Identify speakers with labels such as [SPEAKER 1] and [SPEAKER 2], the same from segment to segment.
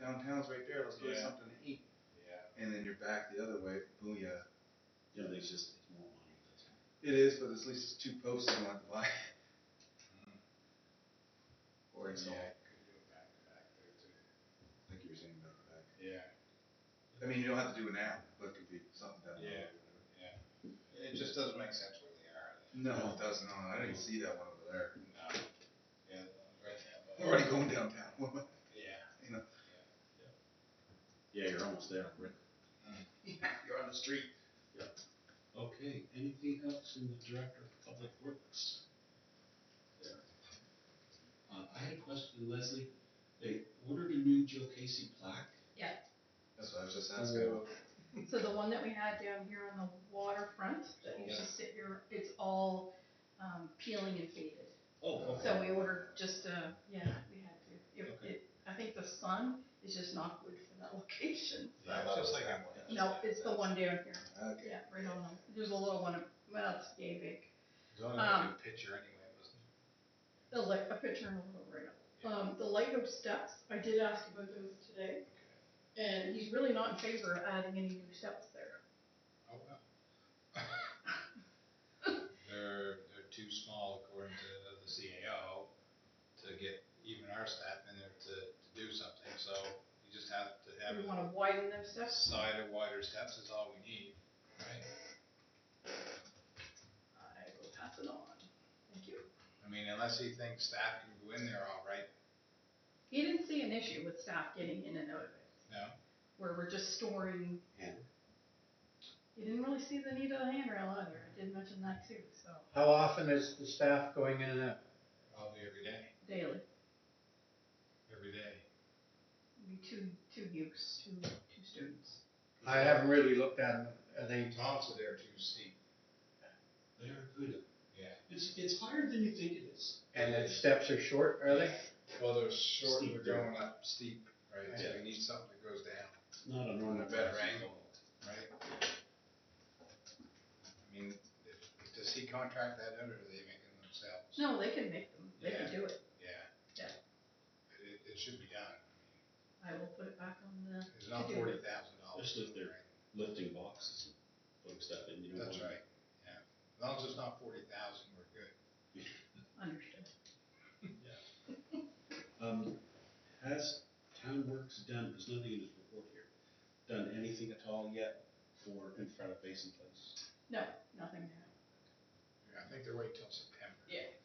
[SPEAKER 1] downtown's right there. Let's go get
[SPEAKER 2] Yeah.
[SPEAKER 1] something to eat.
[SPEAKER 2] Yeah.
[SPEAKER 1] And then you're back the other way. Booyah.
[SPEAKER 3] Yeah, they just, it's more money. that's all.
[SPEAKER 1] It is, but at least it's two posts you don't have to buy. Or it's
[SPEAKER 2] Mm-hmm. yeah.
[SPEAKER 1] all,
[SPEAKER 2] I could go back to back there too.
[SPEAKER 1] like you were saying about the back.
[SPEAKER 2] Yeah.
[SPEAKER 1] I mean, you don't have to do an app, but it could be something down the
[SPEAKER 2] Yeah.
[SPEAKER 1] road.
[SPEAKER 2] It just doesn't make sense where they are.
[SPEAKER 1] No, it does not. I didn't see that one over there.
[SPEAKER 2] No. Yeah. right now, but-
[SPEAKER 1] I'm already going downtown.
[SPEAKER 2] Mm-hmm.
[SPEAKER 1] What am
[SPEAKER 2] Yeah.
[SPEAKER 1] I- you know?
[SPEAKER 3] Yeah, you're almost there, Rick.
[SPEAKER 1] You're on the street.
[SPEAKER 3] Okay, anything else in the Director of Public Works? There. Uh, I had a question, Leslie. They ordered a new Joe Casey plaque.
[SPEAKER 1] That's what I was just asking.
[SPEAKER 4] So the one that we had down here on the waterfront, that used to sit here, it's all um, peeling and faded.
[SPEAKER 3] Oh, okay.
[SPEAKER 4] So we ordered just, uh, yeah, we had to. It-
[SPEAKER 3] Okay.
[SPEAKER 4] it- I think the sun is just not good for that location.
[SPEAKER 2] Yeah, it's just like I'm
[SPEAKER 1] Yeah.
[SPEAKER 4] No, it's the one down here,
[SPEAKER 1] Okay.
[SPEAKER 4] yeah, right on them. There's a little one, well, it's yay big.
[SPEAKER 2] It's only like a picture anyway, wasn't it?
[SPEAKER 4] The light, a picture and a little right up. Um, the lighthouse steps, I did ask about those today, and he's really not in favor of adding any new steps there.
[SPEAKER 2] Oh, well. They're, they're too small according to the CAO to get even our staff in there to, to do something, so you just have to have
[SPEAKER 4] Do
[SPEAKER 2] a
[SPEAKER 4] we wanna widen them steps?
[SPEAKER 2] side of wider steps is all we need, right?
[SPEAKER 4] I will pass it on. Thank you.
[SPEAKER 2] I mean, unless he thinks staff can go in there all right,
[SPEAKER 4] He didn't see an issue with staff getting in and out of it,
[SPEAKER 2] no?
[SPEAKER 4] where we're just storing.
[SPEAKER 3] Yeah.
[SPEAKER 4] He didn't really see the need of the handrail either. I did mention that too, so
[SPEAKER 5] How often is the staff going in and out?
[SPEAKER 2] Probably every day,
[SPEAKER 4] daily,
[SPEAKER 2] every day.
[SPEAKER 4] be two, two youths, two, two students.
[SPEAKER 5] I haven't really looked at them, are
[SPEAKER 2] The
[SPEAKER 5] they,
[SPEAKER 2] tops are there too steep,
[SPEAKER 3] They are good.
[SPEAKER 2] yeah.
[SPEAKER 3] It's, it's higher than you think it is.
[SPEAKER 5] and the steps are short, are they?
[SPEAKER 2] Well, they're short,
[SPEAKER 3] Steep,
[SPEAKER 2] they're
[SPEAKER 3] yeah.
[SPEAKER 2] going up steep, right, so we need something that goes down.
[SPEAKER 3] It's not a
[SPEAKER 2] on
[SPEAKER 3] normal.
[SPEAKER 2] a better angle, right? I mean, if- does he contract that out or do they make it themselves?
[SPEAKER 4] No, they can make them. They can do it.
[SPEAKER 2] Yeah.
[SPEAKER 4] Yeah.
[SPEAKER 2] But It, it should be done.
[SPEAKER 4] I will put it back on the,
[SPEAKER 2] It's not
[SPEAKER 4] To do.
[SPEAKER 2] forty thousand dollars.
[SPEAKER 3] Just lift their- Lifting boxes and putting stuff in, you know.
[SPEAKER 2] That's right, yeah. As long as it's not forty thousand, we're good.
[SPEAKER 4] understood.
[SPEAKER 3] Um, has Town Works done, there's nothing in this report here, done anything at all yet for in front of Basin Place?
[SPEAKER 4] No, nothing there.
[SPEAKER 2] Yeah, I think they're waiting till September.
[SPEAKER 4] Yeah.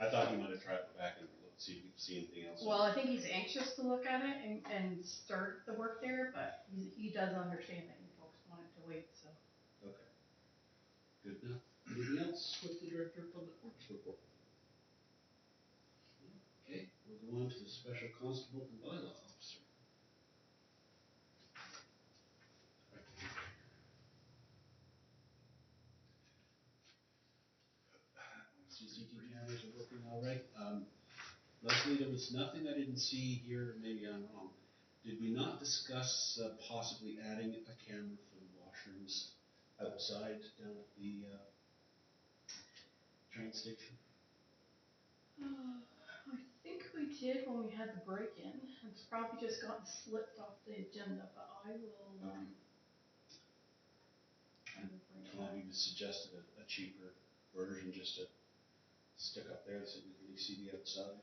[SPEAKER 3] I thought you might have tried to go back and look, see if you could see anything else.
[SPEAKER 4] Well, I think he's anxious to look at it and, and start the work there, but he, he does understand that you folks want it to wait, so.
[SPEAKER 3] Okay. Good enough. Anything else with the Director of Public Works report? Okay, we'll go on to the Special Constable and Bylaw Officer. CCTV cameras are working all right. Um, Leslie, there was nothing I didn't see here, maybe I'm wrong. Did we not discuss uh, possibly adding a camera for the washrooms outside down at the, uh, train station?
[SPEAKER 4] Uh, I think we did when we had the break-in. It's probably just gotten slipped off the agenda, but I will, um, I will bring it up.
[SPEAKER 3] Tom even suggested a, a cheaper version just to stick up there so we could really see the outside.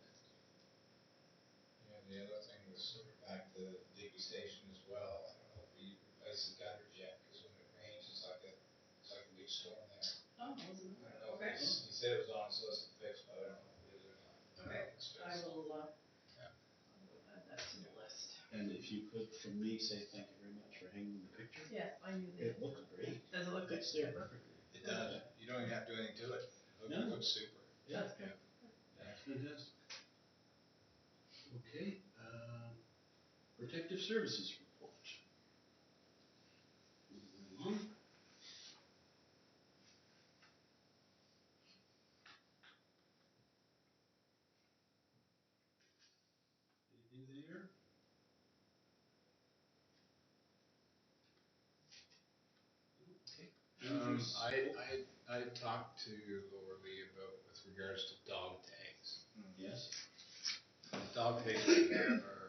[SPEAKER 2] Yeah, the other thing was sort of back to Digby Station as well. I don't know if we replaced the gutter jet, cause when it rains, it's like a, it's like a big storm there.
[SPEAKER 4] Oh, wasn't
[SPEAKER 2] I
[SPEAKER 4] it?
[SPEAKER 2] don't know
[SPEAKER 4] Okay.
[SPEAKER 2] if it's, he said it was on, so it's fixed, but I don't know if it is or not. I don't know if it's
[SPEAKER 4] I
[SPEAKER 2] fixed.
[SPEAKER 4] will, uh,
[SPEAKER 2] Yeah.
[SPEAKER 4] I will add that to the list.
[SPEAKER 3] And if you could, from me, say thank you very much for hanging the picture.
[SPEAKER 4] Yes, I knew that.
[SPEAKER 3] It looks great.
[SPEAKER 4] Does it look good?
[SPEAKER 3] It's there perfectly.
[SPEAKER 2] It does, you don't even have to do anything to it, it
[SPEAKER 3] No.
[SPEAKER 2] looks super.
[SPEAKER 4] That's good.
[SPEAKER 3] That's fantastic. Okay, um, protective services report. Moving along. Anything there? Okay.
[SPEAKER 2] Um, I, I, I talked to Laura Lee about, with regards to dog tags.
[SPEAKER 3] Yes,
[SPEAKER 2] Dog tags we have are